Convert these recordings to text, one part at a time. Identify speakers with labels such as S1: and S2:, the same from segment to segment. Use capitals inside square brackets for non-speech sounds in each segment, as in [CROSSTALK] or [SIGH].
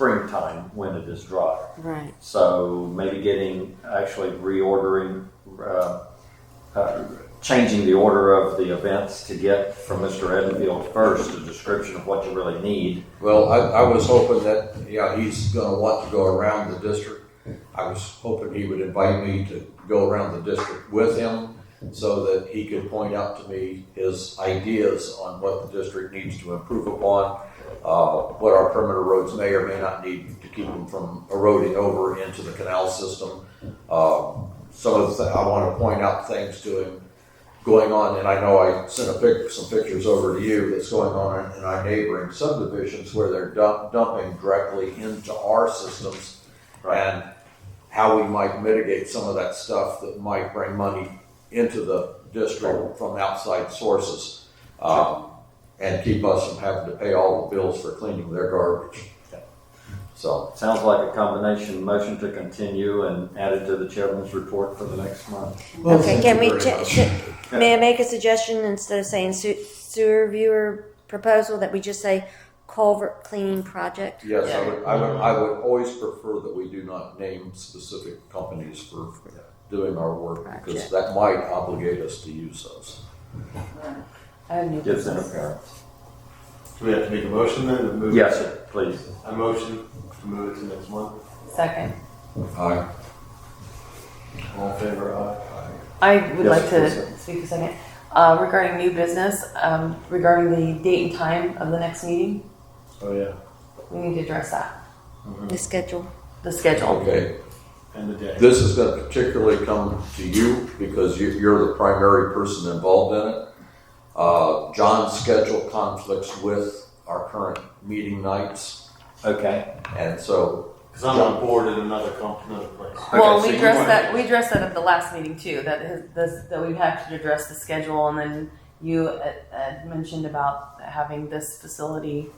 S1: springtime when it is dry.
S2: Right.
S1: So maybe getting, actually reordering, uh, uh, changing the order of the events to get from Mr. Edenfield first, a description of what you really need.
S3: Well, I, I was hoping that, yeah, he's gonna want to go around the district. I was hoping he would invite me to go around the district with him so that he could point out to me his ideas on what the district needs to improve upon, uh, what our perimeter roads may or may not need to keep them from eroding over into the canal system. Uh, some of the, thi- I wanna point out things to him going on, and I know I sent a pic, some pictures over to you that's going on in our neighboring subdivisions where they're dump, dumping directly into our systems. And how we might mitigate some of that stuff that might bring money into the district from outside sources. Um, and keep us from having to pay all the bills for cleaning their garbage. So,
S1: Sounds like a combination motion to continue and add it to the chairman's report for the next month.
S3: Well,
S2: Okay,
S3: thank
S2: can
S3: you
S2: we,
S3: very
S2: cha-
S3: much.
S2: should- may I make a suggestion instead of saying su- sewer viewer proposal that we just say culvert cleaning project?
S3: yes, I would, I would, I would always prefer that we do not name specific companies for doing our work because
S2: Gotcha.
S3: that might obligate us to use those.
S4: I have new
S1: Gives them
S4: business.
S1: apparent.
S5: Do we have to make a motion then to move?
S1: Yes, sir, please.
S5: A motion to move it to next month.
S4: Second.
S3: Aye.
S5: All in favor, aye.
S4: I would
S1: Yes,
S4: like to
S1: please.
S4: speak a second. Uh, regarding new business, um, regarding the date and time of the next meeting,
S5: Oh, yeah.
S4: we need to address that,
S2: The schedule.
S4: the schedule.
S3: Okay.
S5: And the day.
S3: This is going to particularly come to you because you- you're the primary person involved in it. Uh, John's schedule conflicts with our current meeting nights,
S1: Okay.
S3: and so,
S5: Because I'm on board in another company, another place.
S4: Well,
S1: Okay, so
S4: we
S1: you
S4: addressed
S1: wanna-
S4: that, we addressed that at the last meeting too, that is, this, that we have to address the schedule and then you uh, uh, mentioned about having this facility,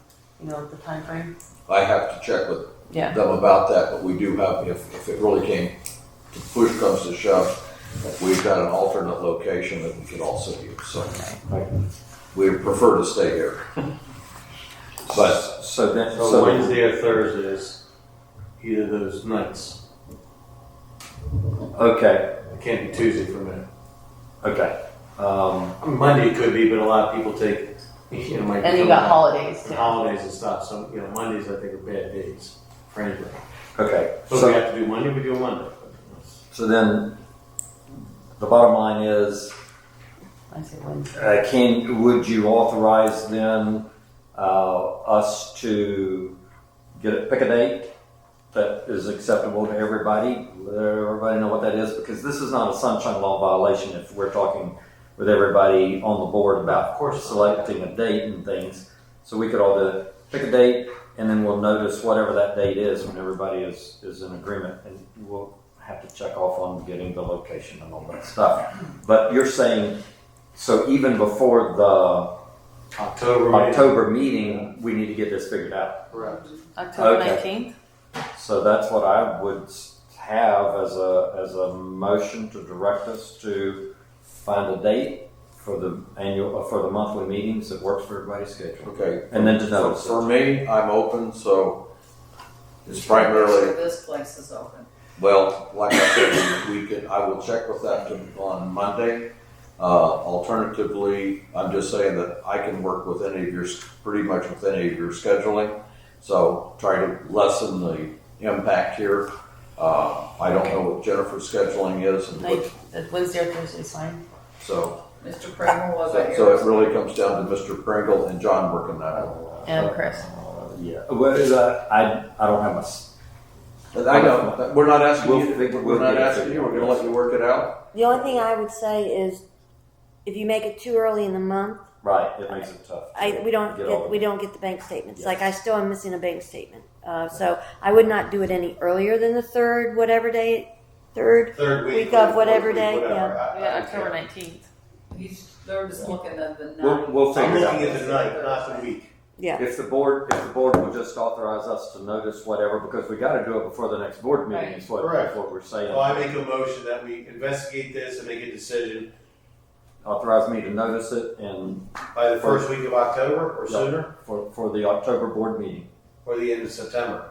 S4: you know, the timeframe.
S3: I have to check with
S4: Yeah.
S3: them about that, but we do have, if, if it really came, to push comes to shove, we've got an alternate location that we could also use, so we prefer to stay here. But
S1: So then,
S5: So
S1: so,
S5: Wednesday or Thursday is either of those nights.
S1: okay,
S5: It can't be Tuesday for me.
S1: okay. Um,
S5: I mean, Monday it could be, but a lot of people take, [LAUGHS] you know, might.
S4: And you
S5: come
S4: got
S5: out
S4: holidays
S5: on
S4: too.
S5: Holidays and stuff, so, you know, Mondays I think are bad days for anybody.
S1: okay,
S5: So if
S1: so,
S5: we have to do Monday, we do Monday.
S1: so then, the bottom line is,
S4: I say Wednesday.
S1: Uh, Can, would you authorize then uh, us to get a, pick a date that is acceptable to everybody? Let everybody know what that is, because this is not a sunshine law violation if we're talking with everybody on the board about, of course, selecting a date and things. So we could all do, pick a date, and then we'll notice whatever that date is when everybody is, is in agreement. And we'll have to check off on getting the location and all that stuff. But you're saying so even before the
S5: October.
S1: October meeting, we need to get this figured out.
S5: Correct.
S4: October
S1: Okay.
S4: nineteenth?
S1: So that's what I would s- have as a, as a motion to direct us to find a date for the annual, uh, for the monthly meetings that works for everybody's schedule.
S3: Okay.
S1: And then to
S3: So
S1: notice it.
S3: for me, I'm open, so it's primarily,
S6: This place is open.
S3: well, like I said, we we can, I will check with that to- on Monday. Uh, alternatively, I'm just saying that I can work with any of your, s- pretty much with any of your scheduling. So try to lessen the impact here. Uh, I don't know what Jennifer's scheduling is and what,
S4: Wednesday or Thursday is fine.
S3: so,
S6: Mr. Pringle wasn't
S3: so
S6: here.
S3: so it really comes down to Mr. Pringle and John working that out.
S4: And Chris.
S1: Uh, Yeah, well, uh, I, I don't have my, s-
S3: But I know, we're not asking
S1: We'll
S3: you,
S1: figure-
S3: we're
S1: we'll
S3: not
S1: get it
S3: asking you,
S1: figured out.
S3: we're gonna let you work it out.
S2: The only thing I would say is if you make it too early in the month,
S1: right, it makes it tough.
S2: I, we don't
S1: Get all
S2: get, we don't get the bank statements.
S1: Yes.
S2: Like I still am missing a bank statement. Uh, so I would not do it any earlier than the third, whatever day, third.
S5: Third week.
S2: Week of
S5: fourth
S2: whatever
S5: week,
S2: day,
S5: whatever.
S2: yeah.
S5: I- I
S4: Yeah,
S5: don't
S4: October
S5: care.
S4: nineteenth.
S6: He's, they're just looking at the
S1: We'll,
S6: night.
S1: we'll
S5: I'm
S1: figure it out.
S5: looking at the night, not the week.
S2: Yeah.
S1: If the board, if the board will just authorize us to notice whatever, because we gotta do it before the next board meeting, is what,
S5: Right.
S1: is what we're saying.
S5: Well, I make a motion that we investigate this and make a decision
S1: Authorize me to notice it and
S5: by the first week of October or
S1: Yeah.
S5: sooner,
S1: for, for the October board meeting.
S5: or the end of September.